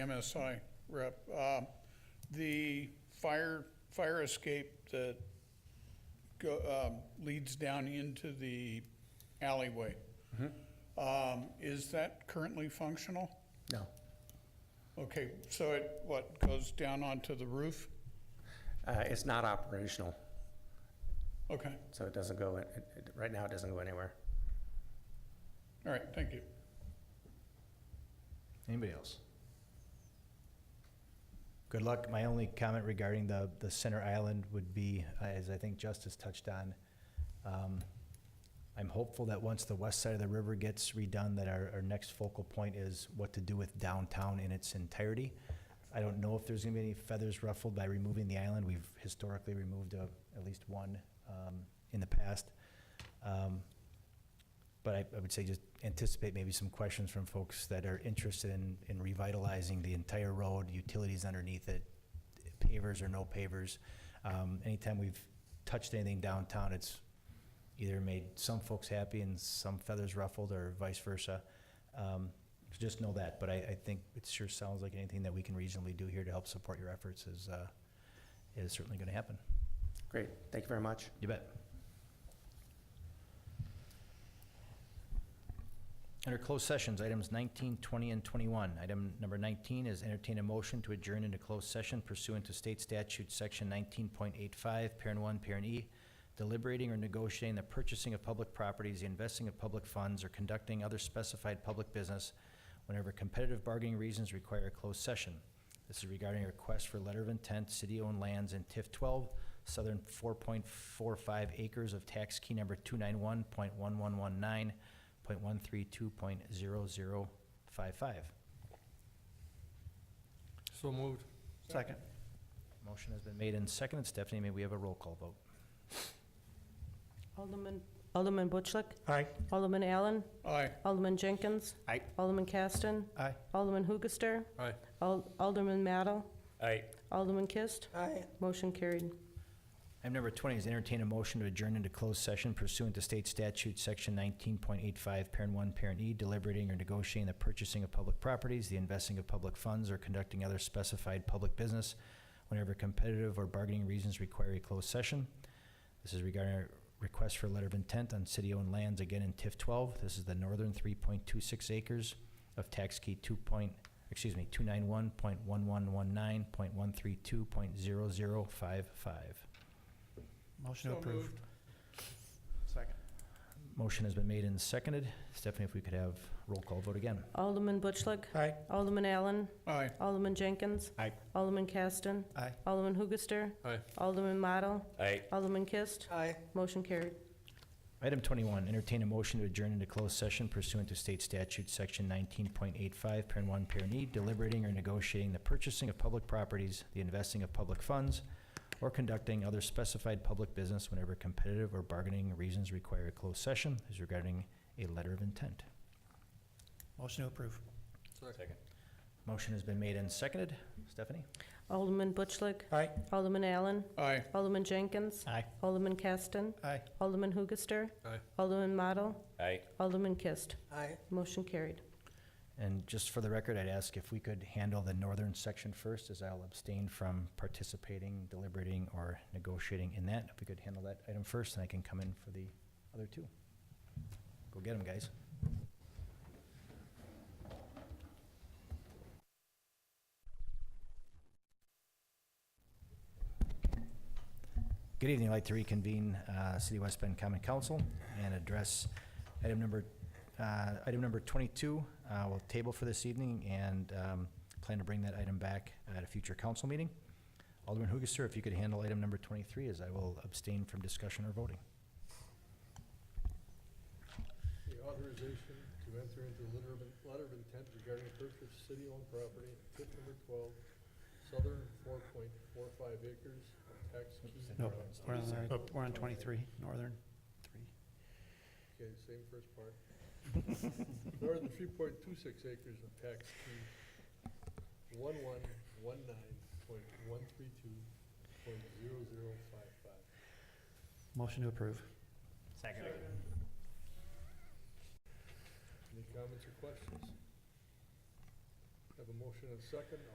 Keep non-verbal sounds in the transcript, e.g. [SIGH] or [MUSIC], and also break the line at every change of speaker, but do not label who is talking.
MSI rep. Um, The fire, fire escape that go, um, leads down into the alleyway, um, is that currently functional?
No.
Okay, so it, what, goes down onto the roof?
Uh, It's not operational,
Okay,
so it doesn't go, in- it- it- right now, it doesn't go anywhere.
all right, thank you.
Anybody else? Good luck. My only comment regarding the, the center island would be, uh, as I think Justice touched on, um, I'm hopeful that once the west side of the river gets redone, that our, our next focal point is what to do with downtown in its entirety. I don't know if there's gonna be any feathers ruffled by removing the island. We've historically removed uh, at least one, um, in the past. Um, but I, I would say just anticipate maybe some questions from folks that are interested in, in revitalizing the entire road, utilities underneath it, pavers or no pavers. Um, anytime we've touched anything downtown, it's either made some folks happy and some feathers ruffled or vice versa. Um, so just know that, but I, I think it sure sounds like anything that we can reasonably do here to help support your efforts is, uh, is certainly gonna happen.
Great, thank you very much.
You bet. Under closed sessions, items 19, 20, and 21. Item number 19 is entertain a motion to adjourn into closed session pursuant to state statute, section 19.85, parent 1, parent E, deliberating or negotiating the purchasing of public properties, the investing of public funds, or conducting other specified public business whenever competitive bargaining reasons require a closed session. This is regarding a request for letter of intent, city-owned lands in TIF 12, southern 4.45 acres of tax key number 291.1119.132.0055.
So moved.
Second. Motion has been made and seconded. Stephanie, may we have a roll call vote?
Alderman, Alderman Butchlick?
Aye.
Alderman Allen?
Aye.
Alderman Jenkins?
Aye.
Alderman Caston?
Aye.
Alderman Hoogaster?
Aye.
Al- Alderman Maddle?
Aye.
Alderman Kist?
Aye.
Motion carried.
Item number 20 is entertain a motion to adjourn into closed session pursuant to state statute, section 19.85, parent 1, parent E, deliberating or negotiating the purchasing of public properties, the investing of public funds, or conducting other specified public business whenever competitive or bargaining reasons require a closed session. This is regarding a request for a letter of intent on city-owned lands, again in TIF 12. This is the northern 3.26 acres of tax key 2 point, excuse me, 291.1119.132.0055.
Motion approved.
Motion has been made and seconded. Stephanie, if we could have roll call vote again.
Alderman Butchlick?
Aye.
Alderman Allen?
Aye.
Alderman Jenkins?
Aye.
Alderman Caston?
Aye.
Alderman Hoogaster?
Aye.
Alderman Maddle?
Aye.
Alderman Kist?
Aye.
Motion carried.
Item twenty-one, entertain a motion to adjourn into closed session pursuant to state statute, section nineteen point eight-five, parent one, parent E, deliberating or negotiating the purchasing of public properties, the investing of public funds, or conducting other specified public business whenever competitive or bargaining reasons require a closed session is regarding a letter of intent.
Motion to approve.
Second.
Motion has been made and seconded. Stephanie?
Alderman Butchlick?
Aye.
Alderman Allen?
Aye.
Alderman Jenkins?
Aye.
Alderman Caston?
Aye.
Alderman Hoogaster?
Aye.
Alderman Maddle?
Aye.
Alderman Kist?
Aye.
Motion carried.
And just for the record, I'd ask if we could handle the northern section first, as I'll abstain from participating, deliberating, or negotiating in that. If we could handle that item first, then I can come in for the other two. Go get them, guys. Good evening. I'd like to reconvene uh, City of West Bend Common Council and address item number uh, Item number 22, uh, we'll table for this evening and um, plan to bring that item back at a future council meeting. Alderman Hoogaster, if you could handle item number 23, as I will abstain from discussion or voting.
The authorization to enter into a letter of, letter of intent regarding purchase of city-owned property, tip number twelve, southern four point four five acres of tax key.
Nope.
We're on, the- we're on 23, northern 3.
Okay, same first part. [LAUGHS] Northern three point two six acres of tax key, one one one nine point one three two point zero zero five five.
Motion to approve.
Second.
Any comments or questions? Have a motion and second,